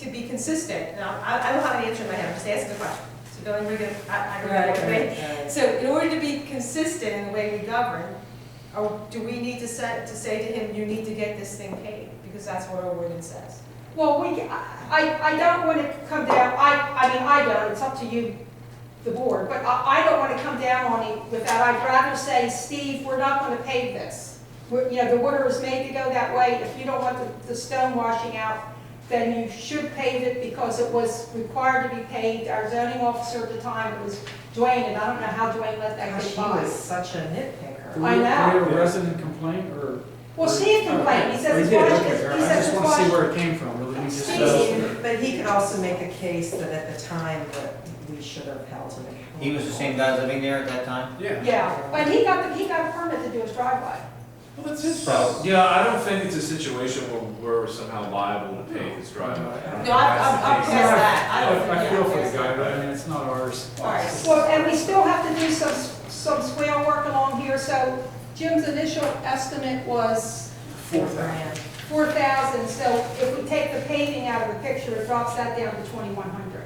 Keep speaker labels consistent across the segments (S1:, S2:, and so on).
S1: consistent, and I, I- I don't have an answer in my head, I'm just asking a question. So don't worry, I, I don't know
S2: Right,
S1: what to think.
S2: right,
S1: So in order to be consistent in the way we govern, or do we need to set, to say to him, you need to get this thing paid? Because that's what our ordinance says.
S3: Well, we, I, I don't want to come down, I, I mean, I don't, it's up to you, the board, but I, I don't want to come down on it with that. I'd rather say, Steve, we're not going to pave this. We're- You know, the order is made to go that way. If you don't want the, the stone washing out, then you should pave it because it was required to be paved. Our zoning officer at the time was Dwayne, and I don't know how Dwayne let that
S2: right.
S3: get
S2: She
S3: by.
S2: was such a nitpicker.
S3: I know.
S4: Do we have a resident complaint or?
S3: Well, Steve complained, he says
S4: We
S3: it's
S4: did,
S3: washed, he
S4: okay, all right. I
S3: says
S4: just
S3: it's
S4: want to see
S3: washed.
S4: where it came from, really. We just, uh,
S3: Steve,
S2: But he could also make a case that at the time that we should have held him. accountable.
S5: He was the same guy living there at that time?
S4: Yeah.
S3: yeah, but he got, the he got a permit to do his driveway.
S6: Well, that's his problem. Yeah, I don't think it's a situation where we're somehow liable to pay his driveway. I don't
S1: No, I'm, I'm I'm past
S6: think that's the case.
S1: that, I don't.
S4: I I feel for the
S1: yeah,
S4: guy, but I mean, it's not ours.
S1: All right.
S3: Well, and we still have to do some, some swale work along here, so Jim's initial estimate was
S4: Four thousand.
S3: four thousand, so if we take the paving out of the picture, it drops that down to twenty-one hundred.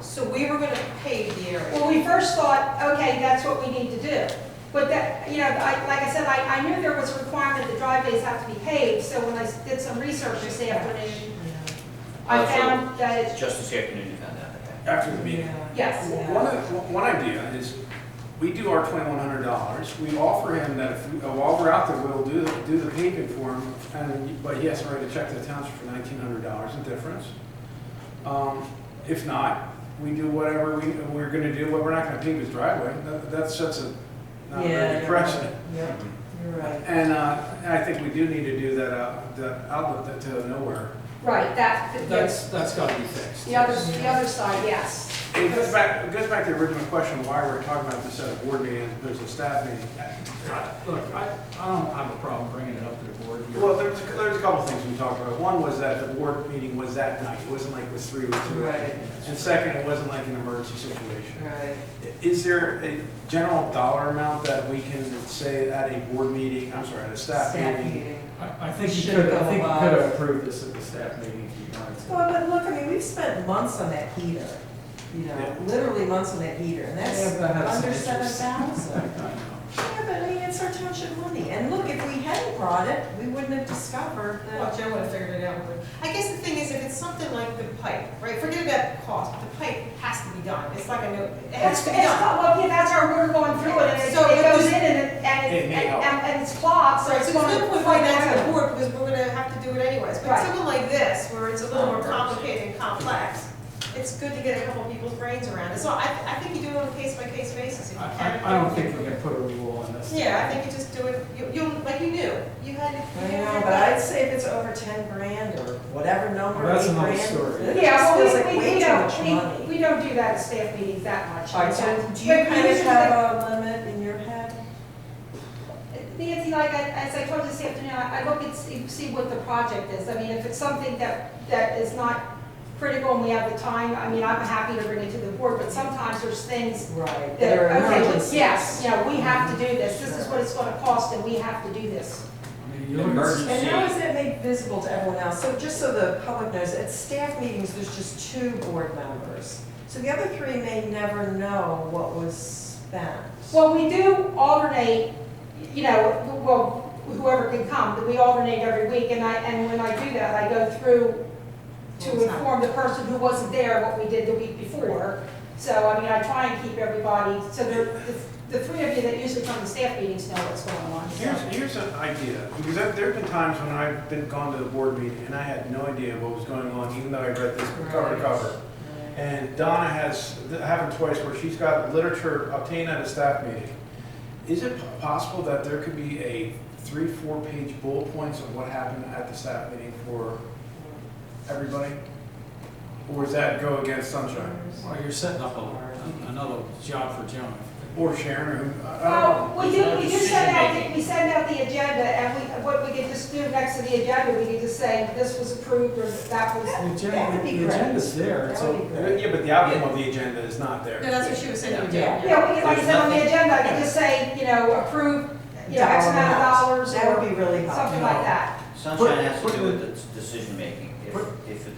S1: So we were gonna pave the area.
S3: Well, we first thought, okay, that's what we need to do, but that, you know, I, like I said, I, I knew there was a requirement that driveways have to be paved, so when I did some research this afternoon, I found that it's,
S5: Just this afternoon you found out, okay.
S6: After the meeting.
S2: Yeah.
S3: yes.
S2: Yeah.
S6: One, one one idea is, we do our twenty-one hundred dollars, we offer him that if, we- while we're out there, we'll do, do the paving for him, and, but he has to write a check to the township for nineteen hundred dollars in difference. Um, If not, we do whatever we, we're gonna do, but we're not gonna pave his driveway, that, that sets a, not a very
S2: Yeah.
S6: good precedent.
S2: Yeah, you're right.
S6: And, uh, and I think we do need to do that, uh, the outlet to nowhere.
S3: Right, that, the,
S4: That's, that's gotta be fixed.
S3: the other, the other side, yes.
S6: It goes back, it goes back to the original question, why we're talking about this at a board meeting, as opposed to a staff meeting.
S4: Look, I, I don't have a problem bringing it up to the board here.
S6: Well, there's, there's a couple things we talked about. One was that the board meeting was that night, it wasn't like it was three weeks
S2: Right.
S6: away. And second, it wasn't like an emergency situation.
S2: Right.
S6: Is there a general dollar amount that we can say at a board meeting, I'm sorry, at a staff
S2: Staff
S6: meeting?
S2: meeting.
S4: I, I think you
S2: Should
S4: could, I
S2: go
S4: think you
S2: above.
S4: could approve this at the staff meeting if you wanted to.
S2: Well, but look, I mean, we've spent months on that heater, you know,
S6: Yeah.
S2: literally months on that heater, and
S4: Yeah,
S2: that's
S4: but I have some
S2: under seven
S4: interest.
S2: thousand.
S4: I know.
S2: Yeah, but I mean, it's our township money, and look, if we hadn't brought it, we wouldn't have discovered
S1: Well,
S2: that.
S1: Joe would have figured it out. I guess the thing is, if it's something like the pipe, right, forget about the cost, the pipe has to be done. It's like a no, it has
S3: It's,
S1: to
S3: it's,
S1: be done.
S3: well, yeah, that's our water going through it, and it
S1: So
S3: it
S1: it
S3: goes
S1: was-
S3: in and, it- and,
S6: It
S3: it-
S6: may
S3: and,
S6: help.
S3: and and it's clogged, so
S1: Right,
S3: it's
S1: so it's
S3: going to.
S1: good with like that to the board, because we're gonna have to do it anyways. But
S3: Right.
S1: something like this, where it's a little more complicated and complex, it's good to get a couple people's brains around it. So I, I think you do it on a case-by-case basis if you
S4: I,
S1: can.
S4: I- I don't think we can put a rule on this.
S1: Yeah, I think you just do it, you, you, like you knew, you had. you
S2: I
S1: knew
S2: know,
S1: your
S2: but I'd say if it's over ten grand or whatever number,
S4: Well, that's
S2: eight
S4: another
S2: grand.
S4: story.
S2: it
S3: Yeah,
S2: just feels like
S3: well, we,
S2: way
S3: we
S2: too much
S3: don't, we,
S2: money.
S3: we don't do that at staff meetings that much.
S2: All right, so
S3: But-
S2: do you
S3: but
S2: kind of
S3: usually- uh,
S2: have a limit in your head?
S3: Nancy, like I, as I told you this afternoon, I I look and see, see what the project is. I mean, if it's something that, that is not critical and we have the time, I mean, I'm happy to bring it to the board, but sometimes there's things
S2: Right.
S3: that
S2: There
S3: are,
S2: are
S3: okay,
S2: emergencies.
S3: yes, yeah, we have to do this. This is what it's going to cost and we have to do this.
S4: I mean, you look at-
S5: Emergency.
S2: And how is that made visible to everyone else? So just so the public knows, at staff meetings, there's just two board members. So the other three may never know what was spent.
S3: Well, we do alternate, you know, well, whoever can come, but we alternate every week, and I, and when I do that, I go through to inform the person who wasn't there what we did the week before. So, I mean, I try and keep everybody, so the, the- the three of you that usually come to staff meetings know what's going on. so.
S6: Here's, here's an idea, because there there have been times when I've been gone to the board meeting and I had no idea what was going on, even though I read this cover to cover. And Donna has, that happened twice, where she's got literature obtained at a staff meeting. Is it po- possible that there could be a three, four-page bullet points of what happened at the staff meeting for everybody? Or does that go against Sunshine,
S4: Well, you're setting up a- another job for Joan.
S6: or Sharon, or who, I- I don't know.
S3: Well, we do, we do send out, we send out the agenda, and we, what we could just do next to the agenda, we could just say, this was approved, or that
S4: The
S3: was.
S2: That
S4: agenda,
S2: would be
S4: the
S2: great.
S4: agenda's there,
S2: That
S4: so
S2: would be great.
S6: Yeah, but the outcome of the agenda is not there.
S1: No, that's what she was saying, you did.
S2: Yeah.
S3: Yeah, we could, like I said, on the
S5: There's
S3: agenda, I could just say, you know, approve, you know, X amount of dollars,
S2: That
S3: or
S2: would be really helpful.
S3: something like that.
S5: Sunshine has to do with the decision making. If, if the